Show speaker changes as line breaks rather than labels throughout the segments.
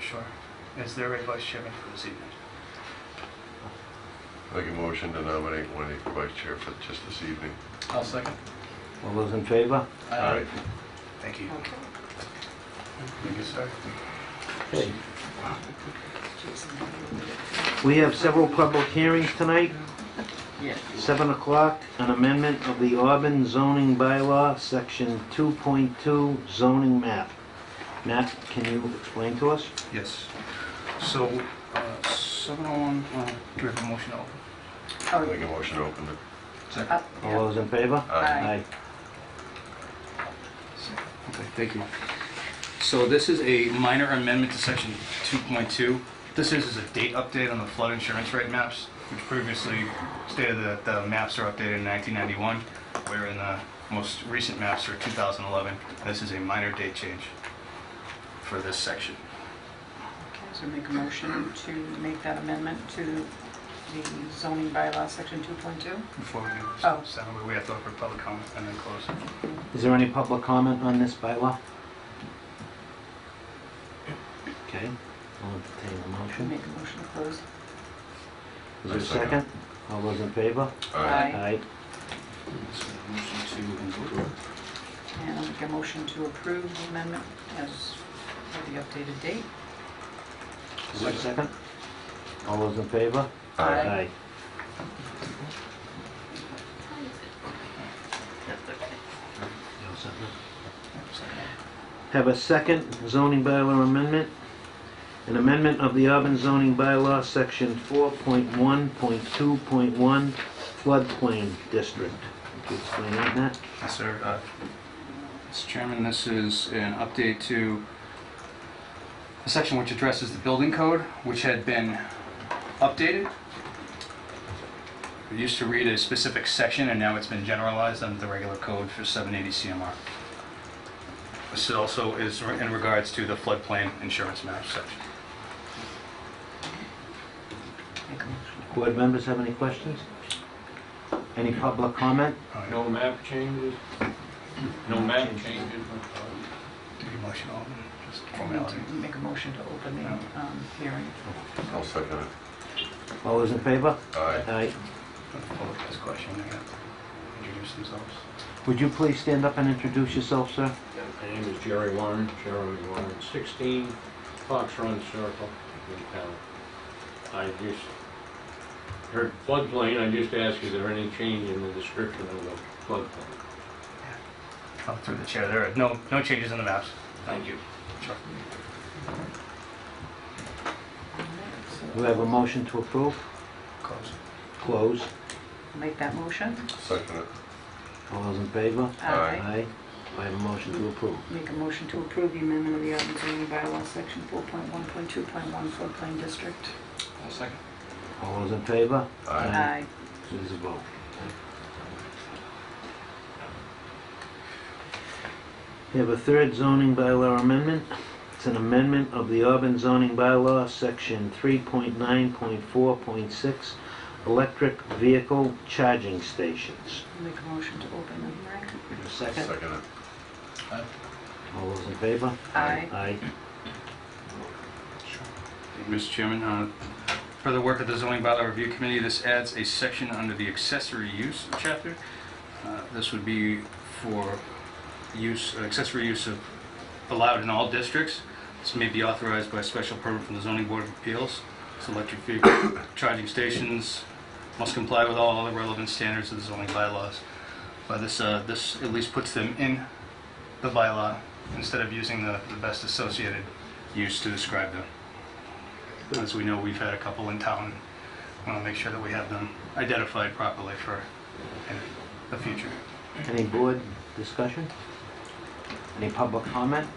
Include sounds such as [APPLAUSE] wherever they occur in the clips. Shore as their vice chairman for this evening.
Make a motion to nominate Wendy for vice chair for just this evening.
I'll second.
All those in favor?
Aye.
Thank you.
Okay.
Thank you, sir.
Okay. We have several public hearings tonight.
Yes.
7 o'clock, an amendment of the Auburn zoning bylaw, section 2.2 zoning map. Matt, can you explain to us?
Yes. So, uh, 701, uh, do we have a motion open?
Oh,
Make a motion to open the,
up, yeah.
All those in favor?
Aye.
Okay, thank you. So this is a minor amendment to section 2.2. This is is a date update on the flood insurance rate maps, which previously stated that the maps are updated in 1991, wherein the most recent maps are 2011. This is a minor date change for this section.
Okay, So make a motion to make that amendment to the zoning bylaw, section 2.2?
Before we do,
Oh.
so that way we have to offer public comment and then close.
Is there any public comment on this bylaw? Okay, I'll entertain the
To
motion.
Make a motion to
Is
close?
there a
I second.
second? All those in favor?
Aye.
So motion to approve.
And I'll make a motion to approve the amendment as for the updated date?
Is there a second? All those in favor?
Aye.
Have a second zoning bylaw amendment. An amendment of the Auburn zoning bylaw, section 4.1.2.1 floodplain district. Could you explain that, Matt?
Yes, sir. Uh, Mr. Chairman, this is an update to a section which addresses the building code, which had been updated. It used to read a specific section, and now it's been generalized under the regular code for 780 CMR. This also is in regards to the floodplain insurance map section.
Make a motion.
Board members have any questions? Any public comment?
No map changes? No map changes?
just
Make a motion to open the um, hearing.
I'll second it.
All those in favor?
Aye.
Aye.
Public has question, they have to introduce themselves.
Would you please stand up and introduce yourself, sir?
My name is Jerry Warren, Jerry Warren, 16 Fox Run Circle in town. I just heard floodplain, I just asked, is there any change in the description of the floodplain?
Up through the chair, there are no, no changes in the maps. Thank you. Sure.
We have a motion to approve,
Close.
close.
Make that motion?
Second it.
All those in favor?
Aye.
Aye. I have a motion to approve.
Make a motion to approve the amendment of the Auburn zoning bylaw, section 4.1.2.1 floodplain district.
I'll second.
All those in favor?
Aye.
Aye. It is a vote. We have a third zoning bylaw amendment. It's an amendment of the Auburn zoning bylaw, section 3.9.4.6, electric vehicle charging stations.
Make a motion to open the hearing.
Second.
Second it.
All those in favor?
Aye.
Aye.
Mr. Chairman, uh, further work of the zoning bylaw review committee, this adds a section under the accessory use chapter. Uh, This would be for use, accessory use of allowed in all districts. This may be authorized by special permit from the zoning board of appeals. This electric vehicle [COUGHS] charging stations must comply with all other relevant standards of the zoning bylaws. But this, uh, this at least puts them in the bylaw instead of using the the best associated use to describe them. As we know, we've had a couple in town. Want to make sure that we have them identified properly for uh, the future.
Any board discussion? Any public comment? Do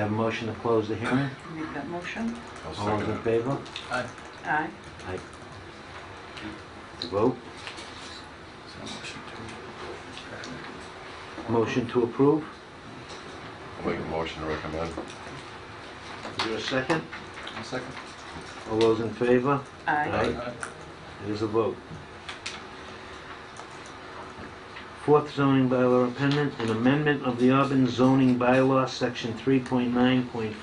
you have a motion to close the hearing?
Make that motion.
I'll
All those
second
in
it.
favor?
Aye.
Aye. Vote. Motion to approve.
I'll Make a motion to recommend.
Is there a second?
Second.
All those in favor?
Aye.
It is a vote. Fourth zoning bylaw amendment, an amendment of the Auburn zoning bylaw, section 3.9.5.